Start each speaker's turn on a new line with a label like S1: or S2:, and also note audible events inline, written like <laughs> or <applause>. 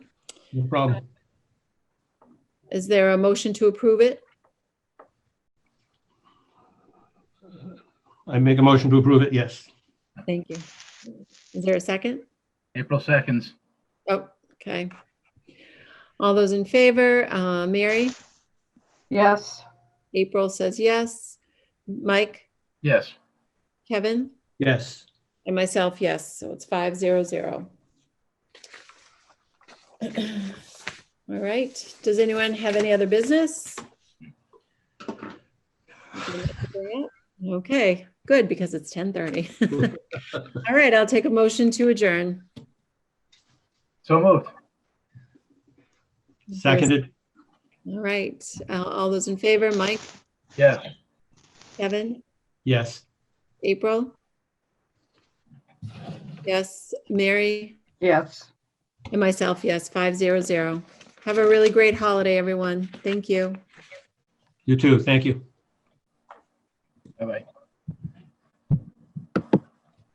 S1: No problem.
S2: Is there a motion to approve it?
S1: I make a motion to approve it, yes.
S2: Thank you. Is there a second?
S3: April seconds.
S2: Oh, okay. All those in favor, uh, Mary?
S4: Yes,
S2: April says yes. Mike,
S3: Yes.
S2: Kevin,
S1: Yes.
S2: and myself, yes. So it's five zero zero. All right. Does anyone have any other business? Okay, good, because it's ten thirty. <laughs> All right, I'll take a motion to adjourn.
S3: So moved.
S1: Seconded.
S2: All right, uh, all those in favor, Mike,
S3: Yes.
S2: Kevin,
S1: Yes.
S2: April? Yes, Mary?
S4: yes.
S2: And myself, yes, 500. Have a really great holiday, everyone. Thank you.
S1: You too. Thank you.
S3: Bye-bye.